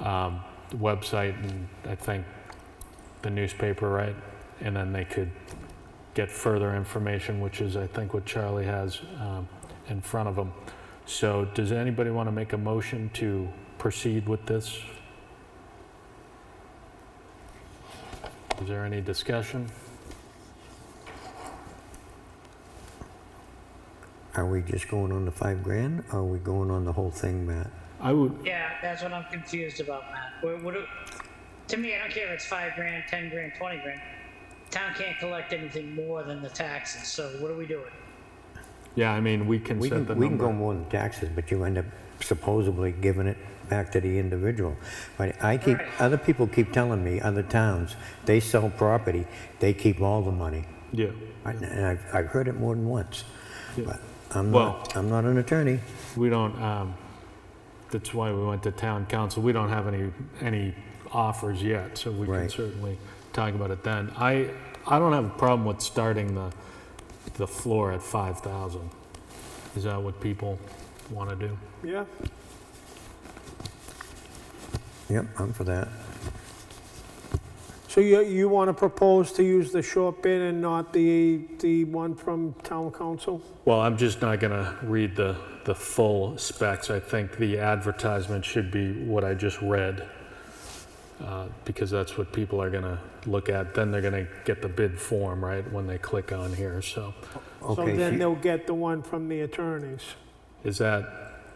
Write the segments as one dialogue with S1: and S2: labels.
S1: um, the website and I think the newspaper, right? And then they could get further information, which is, I think, what Charlie has um, in front of him. So does anybody want to make a motion to proceed with this? Is there any discussion?
S2: Are we just going on the five grand? Or are we going on the whole thing, Matt?
S1: I would,
S3: Yeah, that's what I'm confused about, Matt. What, what, do- to me, I don't care if it's five grand, ten grand, twenty grand. Town can't collect anything more than the taxes, so what are we doing?
S1: yeah, I mean, we can
S2: We
S1: set
S2: can,
S1: the
S2: we can go
S1: number.
S2: more than taxes, but you end up supposedly giving it back to the individual. But I keep,
S3: Right.
S2: other people keep telling me, other towns, they sell property, they keep all the money.
S1: Yeah,
S2: I- And I've, I've heard it more than once.
S1: Yeah.
S2: But I'm
S1: Well-
S2: not, I'm not an attorney.
S1: we don't, um, that's why we went to town council. We don't have any, any offers yet, so we can
S2: Right.
S1: certainly talk about it then. I, I don't have a problem with starting the, the floor at 5,000. Is that what people want to do?
S4: Yeah.
S2: Yep, I'm for that.
S4: So you, you want to propose to use the short bid and not the, the one from town council?
S1: Well, I'm just not going to read the, the full specs. I think the advertisement should be what I just read, uh, because that's what people are going to look at. Then they're going to get the bid form, right, when they click on here. So
S4: So
S2: Okay,
S4: then
S2: she-
S4: they'll get the one from the attorneys.
S1: is that,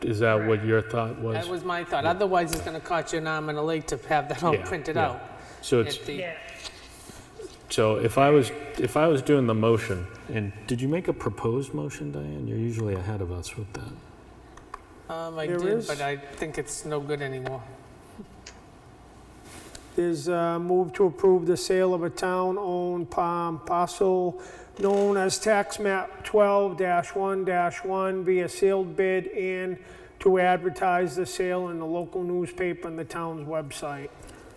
S1: is that what your thought was?
S5: That was my thought. Otherwise, it's going to cost you an arm and a leg to have that all
S1: Yeah,
S5: printed
S1: yeah.
S5: out.
S1: So it's,
S5: at the-
S3: Yeah,
S1: so if I was, if I was doing the motion, and did you make a proposed motion, Diane? You're usually ahead of us with that.
S5: Um, I
S4: There
S5: did,
S4: is-
S5: but I think it's no good anymore.
S4: There's a move to approve the sale of a town-owned palm parcel known as tax map 12-1-1 via sealed bid and to advertise the sale in the local newspaper and the town's website.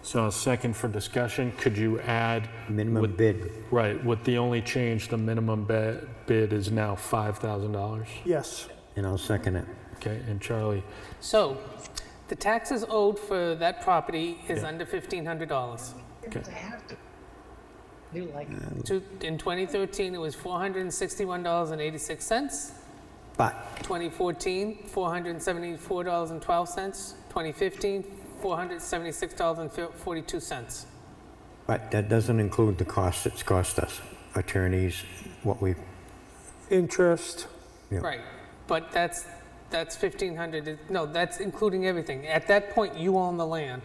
S1: So a second for discussion. Could you add?
S2: minimum
S1: with-
S2: bid,
S1: Right, with the only change, the minimum ba- bid is now $5,000.
S4: Yes.
S2: and I'll second it.
S1: Okay, and Charlie,
S5: So, the taxes owed for that property is under $1,500.
S3: do like,
S5: Two- In 2013, it was $461.86.
S2: But
S5: 2014, $474.12. 2015, $476.42.
S2: But that doesn't include the cost it's cost us, attorneys, what we,
S4: Interest.
S2: Yeah.
S5: Right, but that's, that's 1,500, It- no, that's including everything. At that point, you own the land,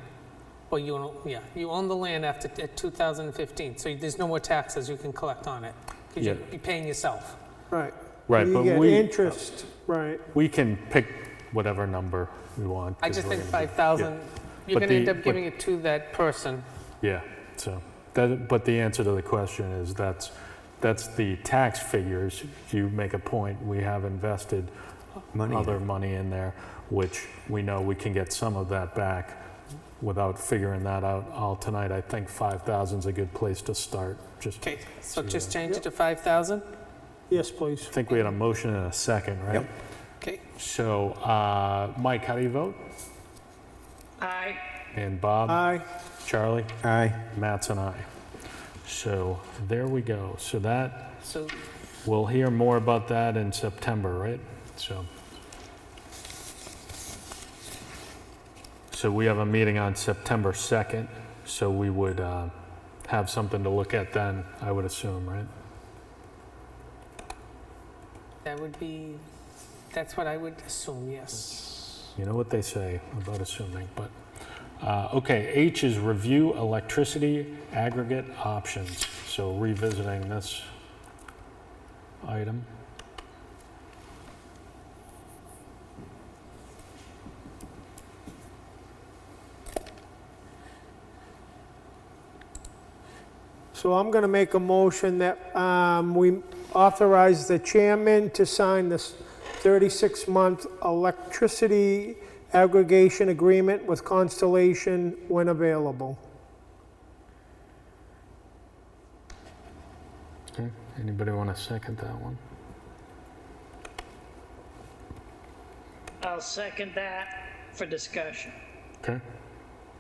S5: well, you own, yeah, you own the land after t- 2015, so there's no more taxes you can collect on it, because
S1: Yeah.
S5: you'd be paying yourself.
S4: Right.
S1: Right,
S4: You
S1: but
S4: get
S1: we-
S4: Interest, right.
S1: we can pick whatever number we want.
S5: I
S1: 'cause
S5: just
S1: we're
S5: think
S1: gonna do-
S5: 5,000,
S1: But
S5: you're going to end
S1: the-
S5: up giving it to that person.
S1: Yeah, so, that, but the answer to the question is that's, that's the tax figures. You make a point, we have invested
S2: Money in
S1: other money in there, which we know we can get some of that back without figuring that out all tonight. I think 5,000 is a good place to start, just
S5: Okay, so just change it to 5,000?
S4: Yes, please.
S1: I think we had a motion and a second, right?
S2: Yep.
S5: Okay,
S1: So, uh, Mike, how do you vote?
S3: I,
S1: And Bob?
S2: Uh,
S4: Aye.
S1: Charlie?
S2: aye,
S1: Matt's and I. So, there we go. So that,
S5: so
S1: we'll hear more about that in September, right? So. So we have a meeting on September 2nd, so we would, uh, have something to look at then, I would assume, right?
S5: that would be, that's what I would assume, yes.
S1: You know what they say about assuming, but, uh, okay, H is review electricity aggregate options. So revisiting this item.
S4: So I'm going to make a motion that um, we authorize the chairman to sign this 36-month electricity aggregation agreement with Constellation when available.
S1: Okay, anybody want to second that one?
S3: I'll second that for discussion.
S1: Okay,